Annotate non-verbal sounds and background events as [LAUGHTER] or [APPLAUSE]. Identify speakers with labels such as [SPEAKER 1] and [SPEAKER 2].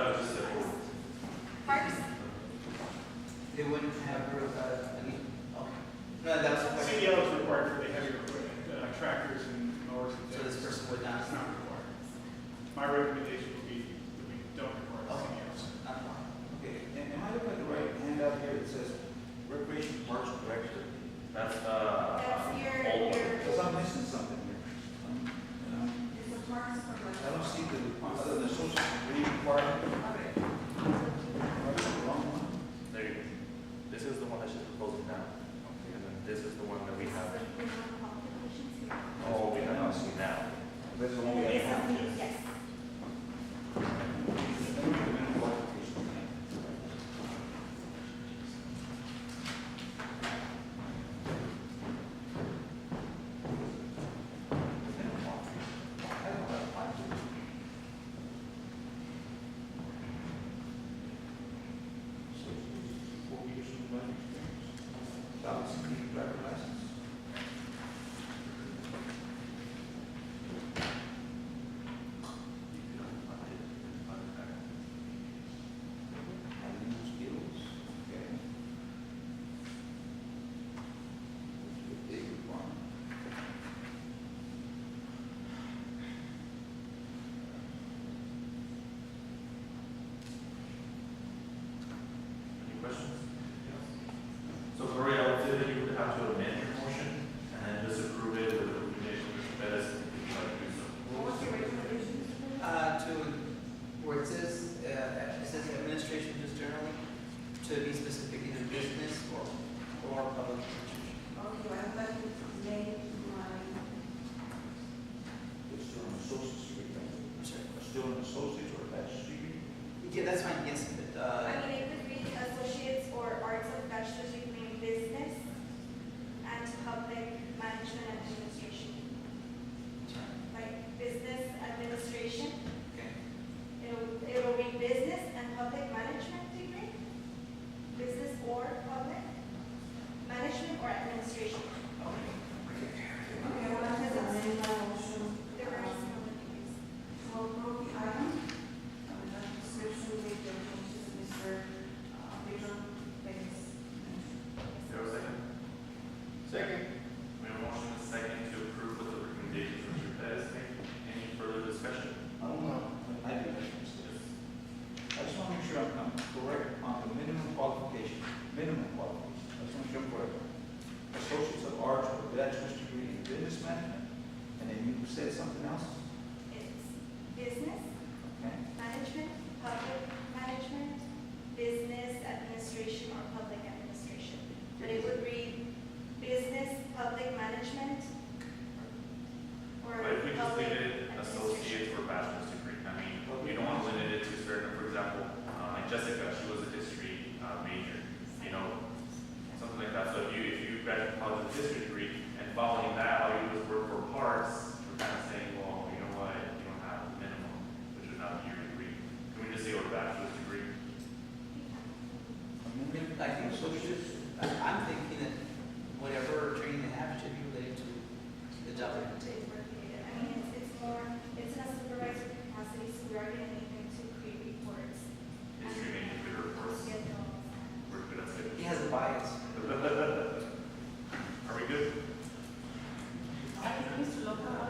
[SPEAKER 1] uh,
[SPEAKER 2] E uh, tractors and mowers and
[SPEAKER 1] So
[SPEAKER 2] things.
[SPEAKER 1] this person would not-
[SPEAKER 2] It's not required. My recommendation would be that we don't require
[SPEAKER 1] Okay.
[SPEAKER 2] CDLs.
[SPEAKER 1] Not one.
[SPEAKER 3] Okay, and am I looking at the right handout here that says recreation parks director?
[SPEAKER 4] That's, uh.
[SPEAKER 5] That's your-
[SPEAKER 4] old one.
[SPEAKER 5] your-
[SPEAKER 3] Because I'm missing something here.
[SPEAKER 2] E
[SPEAKER 3] Um,
[SPEAKER 5] It's a parks
[SPEAKER 3] you know,
[SPEAKER 5] program.
[SPEAKER 3] I don't see the, other than the social security requirement,
[SPEAKER 5] Okay.
[SPEAKER 3] am I looking at the wrong one?
[SPEAKER 4] There you go. This is the one that she's proposing now. And then this is the one that we have. Oh, we have not seen now.
[SPEAKER 3] That's the one we
[SPEAKER 5] Yes,
[SPEAKER 3] have.
[SPEAKER 5] okay, yes.
[SPEAKER 3] Four years of learning experience. Thousand people driver license. Having those skills, okay? That's a Big requirement.
[SPEAKER 4] Any questions? So Gloria, I would say that you would have to amend your motion and then just approve it with the recommendation of Mr. Perez if you'd like to do so.
[SPEAKER 5] What was your recommendation?
[SPEAKER 1] Uh, to, where it says, uh, it says administration just generally, to be specific either business or, or public institution.
[SPEAKER 5] Okay, I'm glad you made my,
[SPEAKER 3] It's still an associate's degree, right?
[SPEAKER 1] I'm sorry.
[SPEAKER 3] Still an associate's or bachelor's degree?
[SPEAKER 1] Yeah, that's fine, yes, but,
[SPEAKER 5] I
[SPEAKER 1] uh,
[SPEAKER 5] mean, it could be associates or arts and bachelor's degree in business and public management administration. Like business administration,
[SPEAKER 1] okay.
[SPEAKER 5] it'll, it'll read business and public management degree. Business or public, management or administration.
[SPEAKER 6] Okay, I want to amend my motion.
[SPEAKER 5] There are some degrees.
[SPEAKER 6] To approve the item, uh, the description with the changes Mr. uh, Pedro Perez.
[SPEAKER 4] Is there a second?
[SPEAKER 1] Second.
[SPEAKER 4] We have a motion and a second to approve with the recommendations of Mr. Perez. Any further discussion?
[SPEAKER 3] I don't know. I do have some stuff. I just want to make sure I'm I'm correct on the minimum qualification, minimum qualification. I just want to make sure I'm correct. Associates of Arts or bachelor's degree in business management, and then you said something else,
[SPEAKER 5] It's business,
[SPEAKER 3] okay?
[SPEAKER 5] management, public management, business administration or public administration. But it would read business, public management, or
[SPEAKER 4] But if we just
[SPEAKER 5] public
[SPEAKER 4] leave it
[SPEAKER 5] administration.
[SPEAKER 4] associates or bachelor's degree, I mean, we don't want to limit it to certain, for example, uh, like Jessica, she was a history uh, major, you know, something like that. So if you, if you graduate college with a history degree and following that, all you do is work for parts, we're kind of saying, well, you know what, you don't have the minimum, which would not be your degree. Can we just say or bachelor's degree?
[SPEAKER 3] A
[SPEAKER 1] I mean,
[SPEAKER 3] minimum-
[SPEAKER 1] I think associates, I- I'm thinking that whatever training they have should be related to the job they're gonna take.
[SPEAKER 5] I mean, it's, it's more, it's in a supervisory capacity, so we are going to need them to create reports. Um,
[SPEAKER 4] History major, good reports,
[SPEAKER 5] Get those.
[SPEAKER 4] we're good at it.
[SPEAKER 1] He
[SPEAKER 4] [LAUGHS]
[SPEAKER 1] has a bias.
[SPEAKER 4] Are we good?
[SPEAKER 6] I think Mr. Lopez